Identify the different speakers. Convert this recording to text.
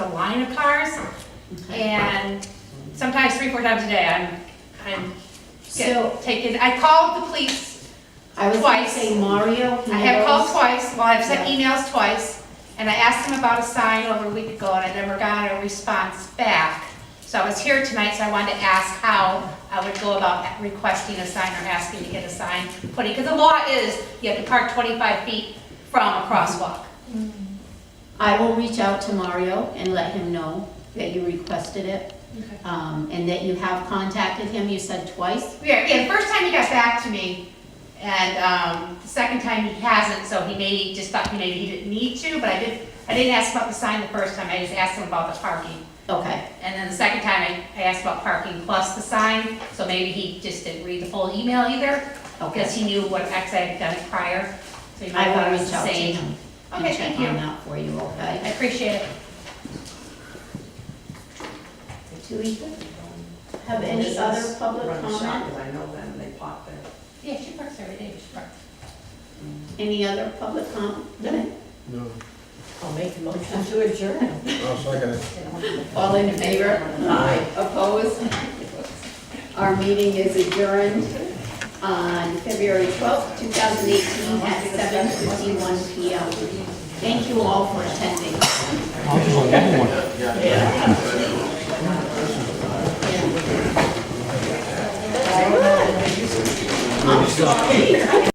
Speaker 1: new cars, and sometimes three, four times a day, I'm, I'm
Speaker 2: So
Speaker 1: get taken, I called the police,
Speaker 2: I was going to
Speaker 1: Twice.
Speaker 2: say Mario. he
Speaker 1: I have called
Speaker 2: knows.
Speaker 1: twice, well, I've sent emails twice, and I asked them about a sign over a week ago, and I never got a response back. So I was here tonight, so I wanted to ask how I would go about requesting a sign or asking to get a sign putting, because the law is, you have to park 25 feet from a crosswalk.
Speaker 2: I will reach out to Mario and let him know that you requested it, um, and that you have contacted him, you said twice.
Speaker 1: Yeah, yeah, the first time he got back to me, and, um, the second time he hasn't, so he maybe, just thought he maybe he didn't need to, but I did, I didn't ask about the sign the first time, I just asked him about the parking.
Speaker 2: Okay,
Speaker 1: And then the second time, I, I asked about parking plus the sign, so maybe he just didn't read the full email either, because
Speaker 2: okay.
Speaker 1: he knew what, actually I had done it prior, so he might have
Speaker 2: I
Speaker 1: thought it
Speaker 2: will
Speaker 1: was
Speaker 2: reach
Speaker 1: the
Speaker 2: out to
Speaker 1: same.
Speaker 2: him
Speaker 1: Okay,
Speaker 2: and check
Speaker 1: thank you.
Speaker 2: on that for you,
Speaker 1: I
Speaker 2: okay?
Speaker 1: appreciate it.
Speaker 2: Do we have any other public
Speaker 3: Run shop,
Speaker 2: comment?
Speaker 3: 'cause I know them, they pop there.
Speaker 1: Yeah, she parks every day, she parks.
Speaker 2: Any other public comment?
Speaker 4: No,
Speaker 3: I'll make a motion to adjourn.
Speaker 4: I'll second it.
Speaker 2: All in favor? Aye. Opposed? Our meeting is adjourned on February 12th, 2018 at 7:51 PM. Thank you all for attending.